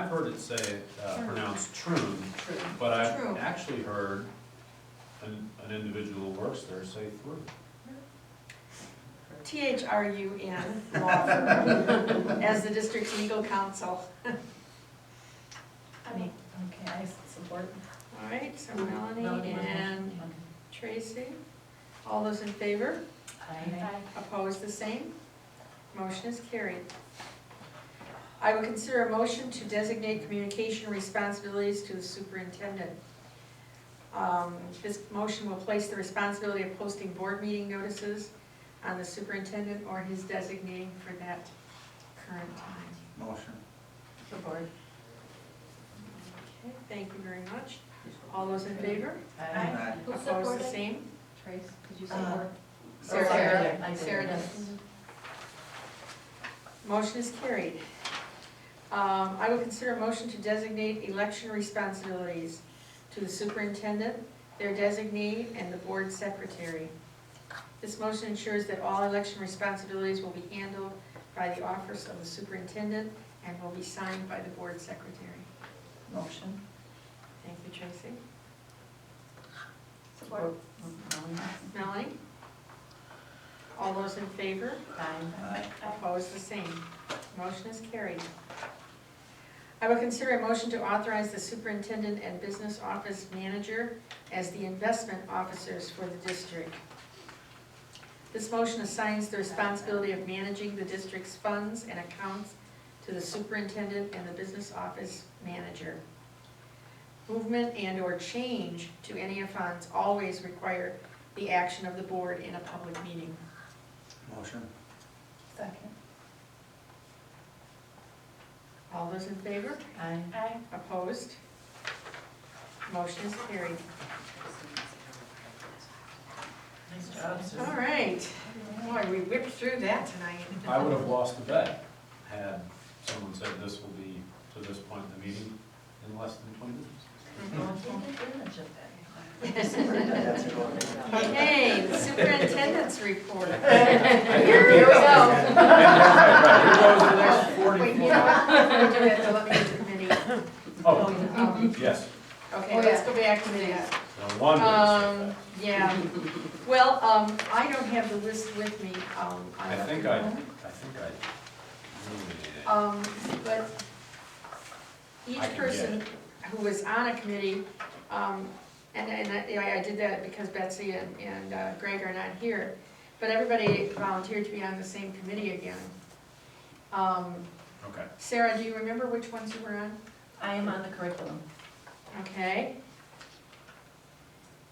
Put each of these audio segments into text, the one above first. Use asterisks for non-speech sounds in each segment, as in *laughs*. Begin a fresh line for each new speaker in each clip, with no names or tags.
heard it say, uh,
Troon.
pronounced troon,
True.
but I've
True.
actually heard an, an individual who works there say through.
T H R U N, law firm, as the district's legal counsel.
I mean, okay, I support.
All right, so Melanie
Melanie.
and Tracy, all those in favor? Opposed, the same? Motion is carried. I will consider a motion to designate communication responsibilities to the superintendent. Um, This motion will place the responsibility of posting board meeting notices on the superintendent or his designee for that current time.
Motion.
The board. Okay, thank you very much. All those in favor?
Aye. Who
Opposed, the
supported?
same?
Trace, could you
Uh,
support?
Sarah.
Sarah.
I did.
Sarah does.
Motion is carried. Um, I will consider a motion to designate election responsibilities to the superintendent, their designee, and the board secretary. This motion ensures that all election responsibilities will be handled by the office of the superintendent and will be signed by the board secretary.
Motion.
Thank you, Tracy.
Support.
Melanie? All those in favor?
Aye.
Opposed, the same. Motion is carried. I will consider a motion to authorize the superintendent and business office manager as the investment officers for the district. This motion assigns the responsibility of managing the district's funds and accounts to the superintendent and the business office manager. Movement and/or change to any of funds always require the action of the board in a public meeting.
Motion.
Second.
All those in favor?
Aye.
Aye.
Opposed? Motion is carried.
Nice job, Sue.
All right. Boy, we whipped through that tonight.
I would have lost the bet had someone said this will be, to this point in the meeting, in less than twenty
*laughs*
minutes.
That's it.
Okay, the superintendent's
*laughs*
report.
Here we Right, here goes the next
Wait, you know
44.
what? We're gonna do that to look at the committee.
Oh,
Um,
yes,
Okay, let's go back to that.
no wonder. it's so
Um,
fast.
yeah. Well, um, I don't have the list with me. Um,
I think I, I think I
Um, but each
I can get
person who was on a committee, um, and, and I, yeah, I did that because Betsy and, and uh, Greg are not here, but everybody volunteered to be on the same committee again. Um,
really, okay.
Sarah, do you remember which ones you were on?
I am on the curriculum.
Okay.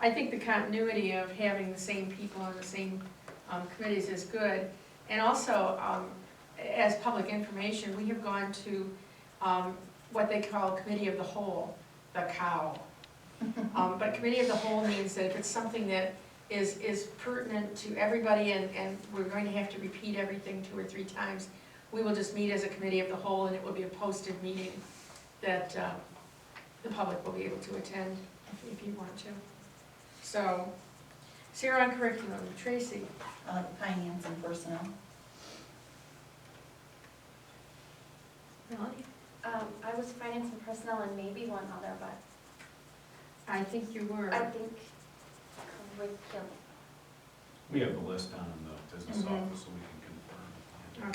I think the continuity of having the same people on the same um, committees is good. And also, um, as public information, we have gone to um, what they call committee of the whole, the cow. Um, But committee of the whole means that if it's something that is, is pertinent to everybody and, and we're going to have to repeat everything two or three times, we will just meet as a committee of the whole and it will be a posted meeting that um, the public will be able to attend if- if you want to. So, Sarah on curriculum, Tracy,
Uh, Finance and personnel.
Melanie?
Um, I was finance and personnel and maybe one other, but
I think you were.
I think curriculum.
We have the list down in the business
Mhm.
office, so we can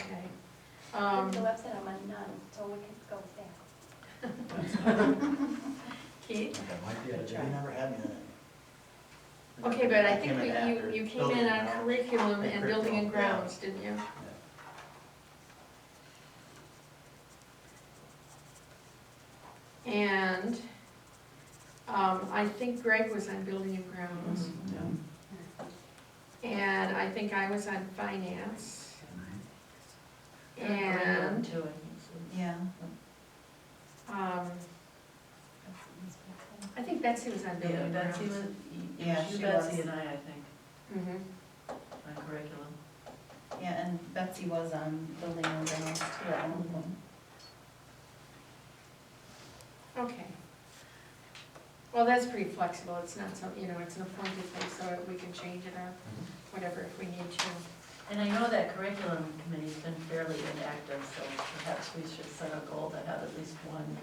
confirm.
Okay.
Um,
Um,
the website I'm on none, so we can go there.
Keith?
That might be it. We never had me then.
Okay, but I think
Came in
that
after.
you, you came
Building
in on
and grounds.
curriculum
And
and building and
curriculum, yeah.
grounds, didn't you? And um, I think Greg was on building and grounds.
Yeah. Mm-hmm.
And I think I was on finance.
Curriculum
And
too, I think, Sue. Yeah.
um, I think Betsy was on building
Yeah,
and grounds.
Betsy was,
Yeah,
you,
she
Betsy
was.
and I, I think,
Mhm.
on curriculum.
Yeah, and Betsy was on building and grounds too, I don't know.
Okay. Well, that's pretty flexible, it's not some, you know, it's an appointed thing, so we can change it or whatever if we need to.
And I know that curriculum committee's been fairly inactive, so perhaps we should set a goal to have at least one